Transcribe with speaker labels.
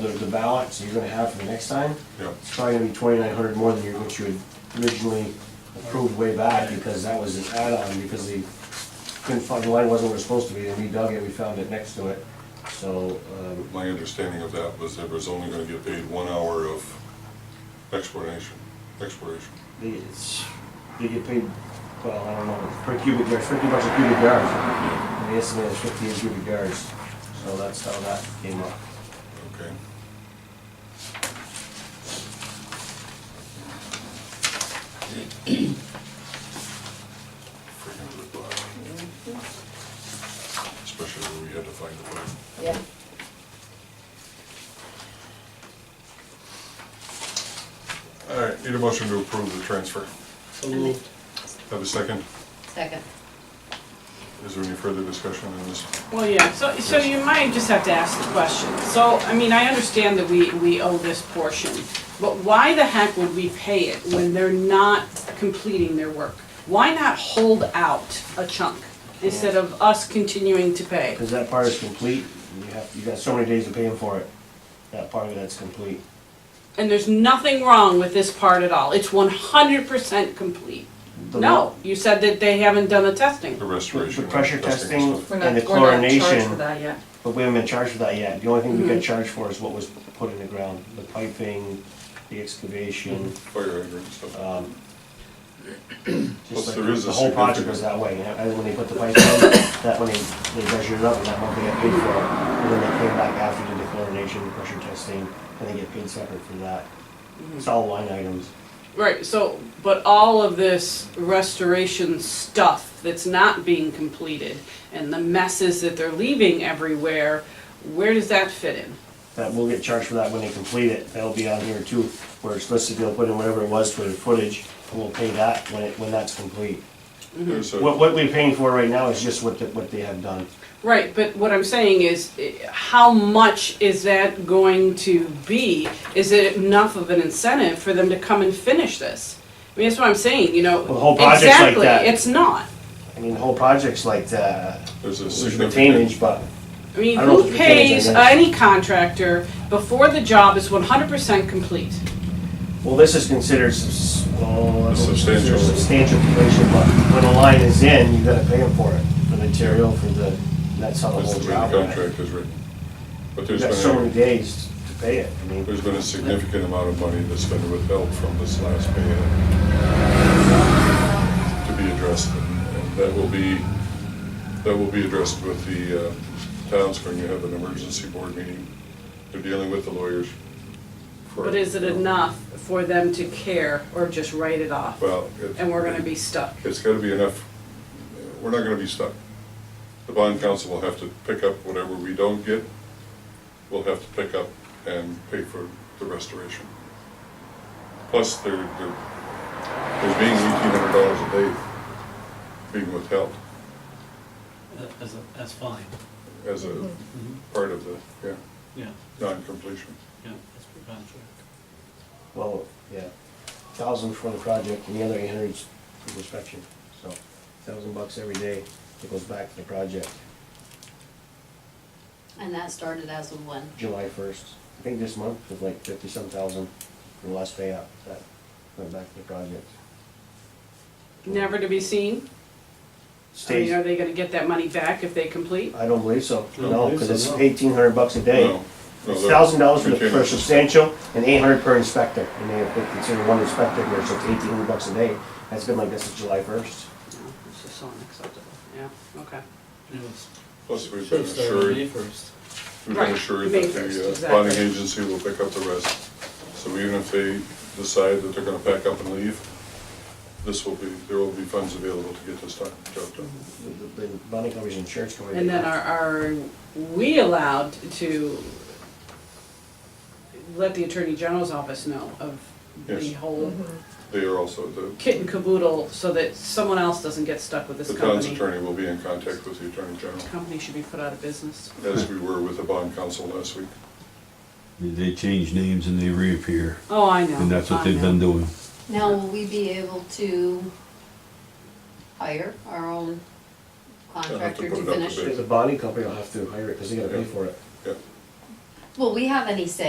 Speaker 1: the, the ballots you're gonna have for the next time,
Speaker 2: Yeah,
Speaker 1: it's probably gonna be twenty-nine hundred more than you, what you had originally approved way back, because that was an add-on, because they couldn't find, the line wasn't where it was supposed to be, and we dug it, we found it next to it, so, um,
Speaker 2: my understanding of that was it was only gonna get paid one hour of exploration, exploration.
Speaker 1: they, it's, they get paid, well, I don't know, per cubic yard, fifty bucks a cubic yard,
Speaker 2: Yeah,
Speaker 1: they estimated fifty a cubic yards, so that's how that came up.
Speaker 2: Okay. Freaking good buy. Especially when we had to find the money.
Speaker 3: Yeah.
Speaker 2: All right, need a motion to approve the transfer. Have a second?
Speaker 3: Second.
Speaker 2: Is there any further discussion on this?
Speaker 4: Well, yeah, so, so you might just have to ask the question. So, I mean, I understand that we, we owe this portion, but why the heck would we pay it when they're not completing their work? Why not hold out a chunk instead of us continuing to pay?
Speaker 1: Cause that part is complete, and you have, you got so many days to pay them for it, that part of that's complete.
Speaker 4: And there's nothing wrong with this part at all. It's one hundred percent complete.
Speaker 1: The-
Speaker 4: No, you said that they haven't done the testing.
Speaker 2: The restoration.
Speaker 1: The pressure testing
Speaker 2: stuff.
Speaker 3: We're
Speaker 1: and the
Speaker 3: not, we're not charged for
Speaker 1: chlorination,
Speaker 3: that Mm-hmm. yet.
Speaker 1: but we haven't been charged for that yet. The only thing we got charged for is what was put in the ground, the piping, the excavation.
Speaker 3: Mm-hmm.
Speaker 2: Fire hydrant stuff.
Speaker 1: um,
Speaker 2: Plus
Speaker 1: Just like,
Speaker 2: there is a
Speaker 1: the whole project was that way, and and when they put the pipe down, that when they, they measured it up, and that month they got paid for it. And then they came back after the chlorination, pressure testing, and they get paid separate for that.
Speaker 3: Mm-hmm.
Speaker 1: It's all line items.
Speaker 4: Right, so, but all of this restoration stuff that's not being completed and the messes that they're leaving everywhere, where does that fit in?
Speaker 1: that we'll get charged for that when they complete it, that'll be on here too, where it's listed, they'll put in whatever it was for the footage, and we'll pay that when it, when that's complete.
Speaker 2: There's a-
Speaker 1: What, what we're paying for right now is just what, the- what they have done.
Speaker 4: Right, but what I'm saying is, eh, how much is that going to be? Is it enough of an incentive for them to come and finish this? I mean, that's what I'm saying, you know.
Speaker 1: Well, the whole project's like
Speaker 4: Exactly,
Speaker 1: that.
Speaker 4: It's not.
Speaker 1: I mean, the whole project's like, that.
Speaker 2: There's a
Speaker 1: there's
Speaker 2: significant.
Speaker 1: retainage, but
Speaker 4: I mean,
Speaker 1: I don't know
Speaker 4: who
Speaker 1: if the mechanics
Speaker 4: pays
Speaker 1: are nice.
Speaker 4: any contractor before the job is one hundred percent complete?
Speaker 1: Well, this is considered subs- well,
Speaker 2: A substantial-
Speaker 1: considered substantial completion, but when a line is in, you gotta pay them for it, for the material, for the, that's how the
Speaker 2: That's
Speaker 1: whole
Speaker 2: the way the
Speaker 1: job went.
Speaker 2: contract is written. But
Speaker 1: You
Speaker 2: there's
Speaker 1: got so many
Speaker 2: been,
Speaker 1: days to pay it, I mean.
Speaker 2: there's been a significant amount of money that's been withheld from this last pay to be addressed. and- And that will be, that will be addressed with the uh, towns when you have an emergency board meeting. They're dealing with the lawyers. for-
Speaker 4: But is it enough for them to care or just write it off?
Speaker 2: Well. it-
Speaker 4: And we're gonna be stuck.
Speaker 2: It's gotta be enough, we're not gonna be stuck. The bond council will have to pick up whatever we don't get, we'll have to pick up and pay for the restoration. Plus, there, there, there's being eighteen hundred dollars a day being withheld
Speaker 5: That- That's, that's fine,
Speaker 2: as a
Speaker 5: Mm-hmm.
Speaker 2: part of the, yeah,
Speaker 5: yeah,
Speaker 2: non-completion.
Speaker 5: yeah, that's per contract.
Speaker 1: Well, yeah, thousand for the project and the other eight hundred's for inspection, so thousand bucks every day that goes back to the project,
Speaker 3: And that started as a one.
Speaker 1: July first. I think this month was like fifty-some thousand for the last pay out, that went back to the project.
Speaker 4: Never to be seen? I mean, are
Speaker 1: Stays,
Speaker 4: they gonna get that money back if they complete?
Speaker 1: I don't believe so,
Speaker 5: Don't
Speaker 1: no,
Speaker 5: believe
Speaker 1: cause
Speaker 5: so,
Speaker 1: it's
Speaker 5: no.
Speaker 1: eighteen hundred bucks a day.
Speaker 2: No, no,
Speaker 1: It's
Speaker 2: that-
Speaker 1: thousand dollars for
Speaker 2: we
Speaker 1: the,
Speaker 2: can't-
Speaker 1: for substantial and eight hundred per inspector, and they, they consider one inspector here, so it's eighteen hundred bucks a day. That's been like this since July first.
Speaker 4: No, it's just so unacceptable. Yeah, okay.
Speaker 5: It was,
Speaker 2: Plus, we've been
Speaker 5: should start on May
Speaker 2: assured,
Speaker 5: first.
Speaker 2: We've
Speaker 4: Right,
Speaker 2: been assured
Speaker 4: May
Speaker 2: that
Speaker 4: first,
Speaker 2: the uh,
Speaker 4: exactly.
Speaker 2: bonding agency will pick up the rest. So even if they decide that they're gonna pack up and leave, this will be, there will be funds available to get this done- job done.
Speaker 1: The, the, the bonding company's insurance company.
Speaker 4: And then are, are we allowed to let the Attorney General's office know of the
Speaker 2: Yes.
Speaker 4: whole
Speaker 2: They are also, the,
Speaker 4: kit and caboodle so that someone else doesn't get stuck with this
Speaker 2: the town's
Speaker 4: company?
Speaker 2: attorney will be in contact with the attorney general,
Speaker 4: Company should be put out of business.
Speaker 2: as we were with the bond council last week.
Speaker 6: They change names and they reappear,
Speaker 4: Oh, I know.
Speaker 6: and that's
Speaker 4: I
Speaker 6: what they've
Speaker 4: know.
Speaker 6: been doing.
Speaker 3: Now, will we be able to hire our own contractor
Speaker 2: put
Speaker 3: to
Speaker 2: it up to
Speaker 3: finish?
Speaker 2: bid.
Speaker 1: The bonding company will have to hire it, cause they gotta pay for it.
Speaker 2: Yeah.
Speaker 3: Will we have any say